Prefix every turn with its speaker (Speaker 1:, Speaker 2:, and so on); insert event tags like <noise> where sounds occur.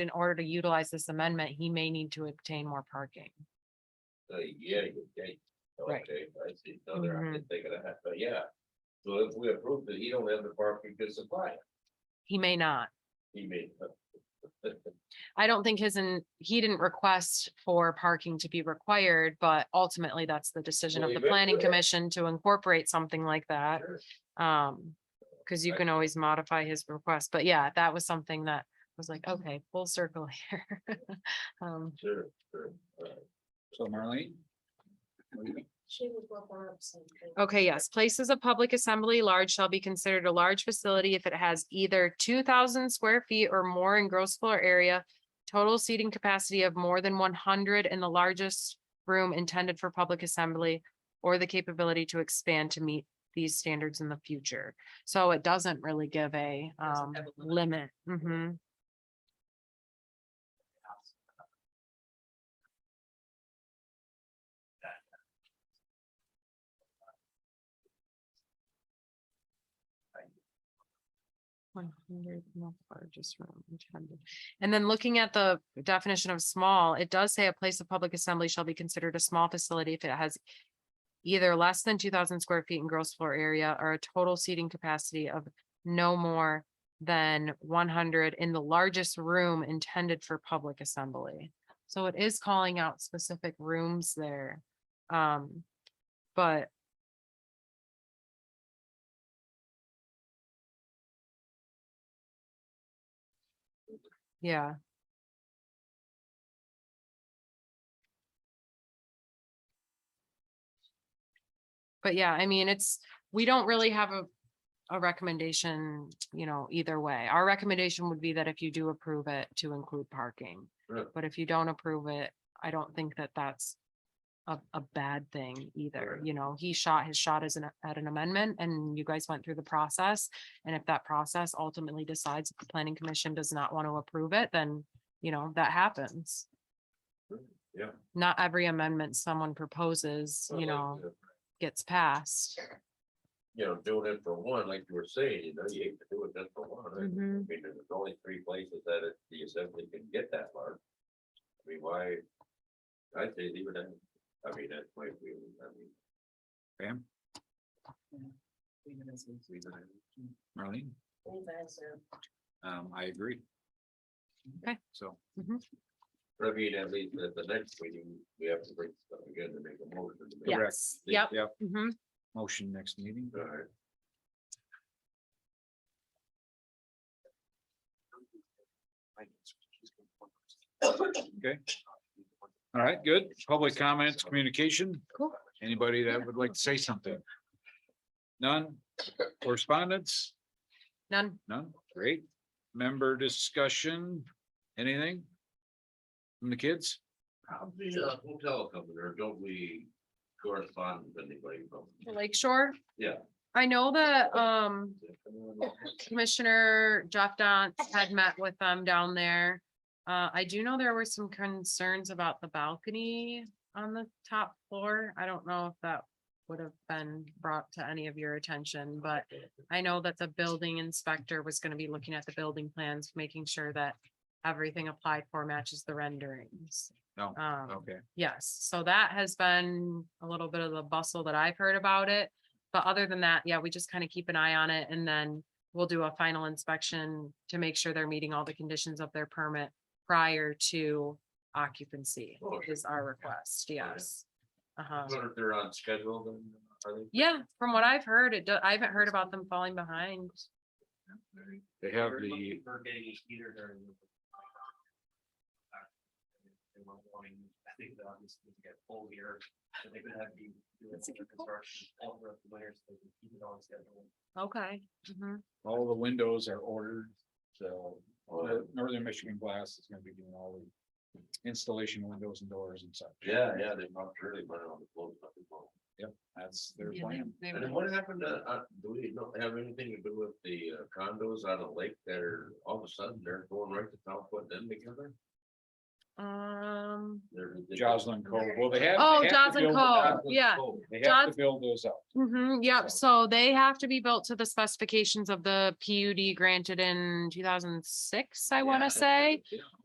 Speaker 1: in order to utilize this amendment, he may need to obtain more parking.
Speaker 2: Uh, yeah, you okay.
Speaker 1: Right.
Speaker 2: Oh,
Speaker 1: Mm-hmm.
Speaker 2: Okay, I see, no, they're, I didn't think of that, but yeah. So if we approve that, he don't have the parking to supply, it,
Speaker 1: He may not.
Speaker 2: he made.
Speaker 1: I don't think his, and he didn't request for parking to be required, but ultimately that's the decision of
Speaker 2: Well,
Speaker 1: the
Speaker 2: you bet.
Speaker 1: planning commission to incorporate something like that.
Speaker 2: Sure.
Speaker 1: Um, cause you
Speaker 2: I-
Speaker 1: can always modify his request, but yeah, that was something that was like, okay, full circle <laughs> here. Um,
Speaker 2: Sure, sure, alright.
Speaker 3: So Marlene?
Speaker 4: She would look up something.
Speaker 1: Okay, yes, places of public assembly large shall be considered a large facility if it has either two thousand square feet or more in gross floor area. Total seating capacity of more than one hundred in the largest room intended for public assembly. Or the capability to expand to meet these standards in the future. So it doesn't really give a
Speaker 4: Doesn't
Speaker 1: um
Speaker 4: have a limit.
Speaker 1: limit. Mhm. One hundred in the largest room intended. And then looking at the definition of small, it does say a place of public assembly shall be considered a small facility if it has. Either less than two thousand square feet in gross floor area or a total seating capacity of no more. Than one hundred in the largest room intended for public assembly. So it is calling out specific rooms there. Um, but yeah, but yeah, I mean, it's, we don't really have a, a recommendation, you know, either way. Our recommendation would be that if you do approve it to include parking.
Speaker 2: Right.
Speaker 1: But if you don't approve it, I don't think that that's a, a bad thing either.
Speaker 2: Right.
Speaker 1: You know, he shot his shot as an, at an amendment and you guys went through the process. And if that process ultimately decides that the planning commission does not want to approve it, then, you know, that happens.
Speaker 2: Yeah.
Speaker 1: Not every amendment someone proposes, you
Speaker 2: Like,
Speaker 1: know,
Speaker 2: uh,
Speaker 1: gets passed.
Speaker 2: You know, doing it for one, like you were saying, you know, you hate to do it just for one, right? I
Speaker 1: Mhm.
Speaker 2: mean, there's only three places that it- the assembly can get that large. I mean, why? I'd say leave it in, I mean, that's my view, I mean.
Speaker 3: Pam?
Speaker 2: leave it in.
Speaker 3: Marlene? Um, I agree.
Speaker 1: Okay.
Speaker 3: So,
Speaker 2: I mean, at least at the next meeting, we have to bring stuff again to make a motion. to make-
Speaker 3: Yeah.
Speaker 1: Yes, yep.
Speaker 3: yep,
Speaker 1: Mhm.
Speaker 3: motion next meeting.
Speaker 2: All right.
Speaker 3: Okay. All right, good. Public comments, communication.
Speaker 1: Cool.
Speaker 3: Anybody that would like to say something? None? Correspondence?
Speaker 1: None.
Speaker 3: None? Great. Member discussion? Anything? From the kids?
Speaker 2: How's the uh, hotel company, or don't we correspond with anybody from?
Speaker 1: The Lake Shore.
Speaker 2: Yeah.
Speaker 1: I know that, um, Commissioner Jeff Dance had met with them down there. Uh, I do know there were some concerns about the balcony on the top floor. I don't know if that would have been brought to any of your attention, but I know that the building inspector was gonna be looking at the building plans, making sure that everything applied for matches the renderings.
Speaker 3: No,
Speaker 1: Um,
Speaker 3: Okay,
Speaker 1: yes, so that has been a little bit of the bustle that I've heard about it. But other than that, yeah, we just kind of keep an eye on it and then we'll do a final inspection to make sure they're meeting all the conditions of their permit prior to occupancy
Speaker 2: Oh, okay.
Speaker 1: is our request, yes. Uh-huh.
Speaker 2: Wonder if they're on schedule then, are they?
Speaker 1: Yeah, from what I've heard, it, do- I haven't heard about them falling behind.
Speaker 3: they have the,
Speaker 5: For getting a heater during. the- They were wanting, I think the obvious was to get full here, and they could have the.
Speaker 1: That's a good point.
Speaker 5: Construction all throughout the winter, so they can keep it on schedule.
Speaker 1: Okay. mhm.
Speaker 3: all the windows are ordered, so
Speaker 2: Well,
Speaker 3: Northern Michigan Glass is gonna be doing all the installation windows and doors and such.
Speaker 2: Yeah, yeah, they probably really went on the close. up as well.
Speaker 3: That's their
Speaker 1: Yeah, they-
Speaker 3: plan.
Speaker 1: they
Speaker 2: And
Speaker 1: would-
Speaker 2: then what happened to, uh, do we not have anything to do with the uh, condos on the lake that are all of a sudden they're going right to Southwood then together?
Speaker 1: Um,
Speaker 2: They're- Ah, they-
Speaker 3: Joslyn Cove, well, they have.
Speaker 1: oh,
Speaker 3: they have to
Speaker 1: Johnson
Speaker 3: build-
Speaker 1: Cove, yeah.
Speaker 2: oh,
Speaker 3: They have to
Speaker 1: Jos-
Speaker 3: build those up.
Speaker 1: Mm-hmm, yep, so they have to be built to the specifications of the PUD granted in two thousand six, I
Speaker 2: Yeah,
Speaker 1: wanna
Speaker 2: that's-
Speaker 1: say.